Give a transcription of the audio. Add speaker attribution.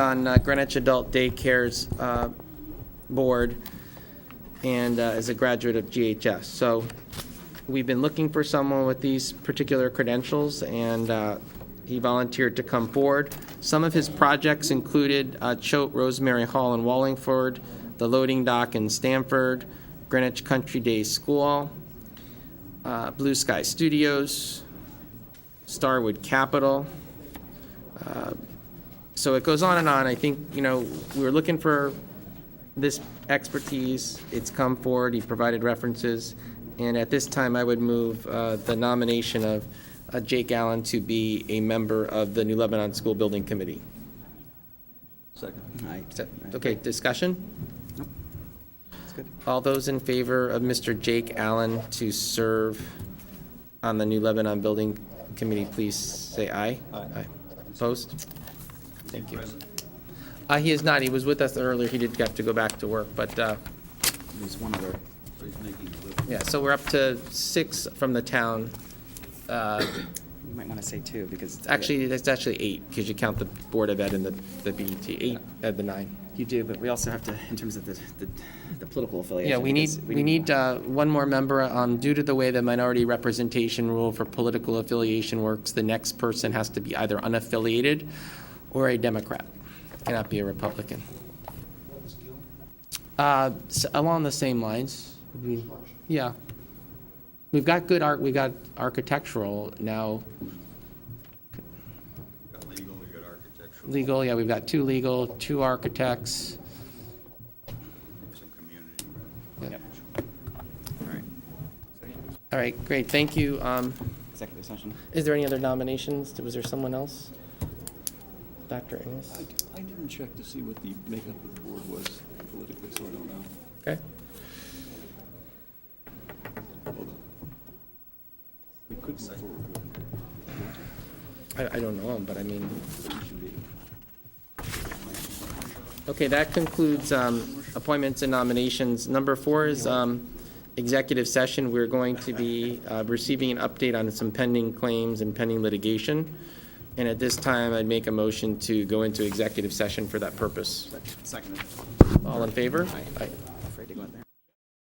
Speaker 1: on uh, Greenwich Adult Daycare's uh, board and uh, is a graduate of GHS. So we've been looking for someone with these particular credentials, and uh, he volunteered to come forward. Some of his projects included uh, Choate Rosemary Hall in Wallingford, the loading dock in Stamford, Greenwich Country Day School, uh, Blue Sky Studios, Starwood Capital, so it goes on and on. I think, you know, we were looking for this expertise. It's come forward. He provided references. And at this time, I would move uh, the nomination of uh, Jake Allen to be a member of the New Lebanon School Building Committee.
Speaker 2: Second.
Speaker 1: So- Okay, discussion?
Speaker 2: That's good.
Speaker 1: All those in favor of Mr. Jake Allen to serve on the New Lebanon Building Committee, please say aye.
Speaker 2: Aye.
Speaker 1: Opposed? Thank you. Uh, He is not, he was with us earlier, he did have to go back to work, but, uh,
Speaker 2: There's one other. He's making a living.
Speaker 1: yeah, so we're up to six from the town. Uh,
Speaker 2: You might want to say two, because.
Speaker 1: Actually, that's actually eight, because you count the Board of Ed and the the BET, eight of the nine.
Speaker 2: You do, but we also have to, in terms of the, the, the political affiliation.
Speaker 1: Yeah, we need,
Speaker 2: because
Speaker 1: we need uh, one more member. Um, Due to the way the minority representation rule for political affiliation works, the next person has to be either unaffiliated or a Democrat, cannot be a Republican. Uh, s- Along the same lines. we- Yeah. We've got good art, we got architectural now,
Speaker 3: Got legal, we got architectural,
Speaker 1: legal, yeah, we've got two legal, two architects.
Speaker 3: some community.
Speaker 1: Yeah.
Speaker 2: Yep. All right,
Speaker 1: All right, great, thank you. Um,
Speaker 2: executive session.
Speaker 1: Is there any other nominations? Was there someone else? Dr. Ennis?
Speaker 4: I didn't check to see what the makeup of the board was politically, so I don't know.
Speaker 1: Okay.
Speaker 4: Hold on. We could move forward with it.
Speaker 1: I, I don't know him, but I mean,
Speaker 4: but it should be-
Speaker 1: okay, that concludes um, appointments and nominations. Number four is um, executive session. We're going to be uh, receiving an update on some pending claims and pending litigation. And at this time, I'd make a motion to go into executive session for that purpose.
Speaker 2: Second.
Speaker 1: All in favor? Aye.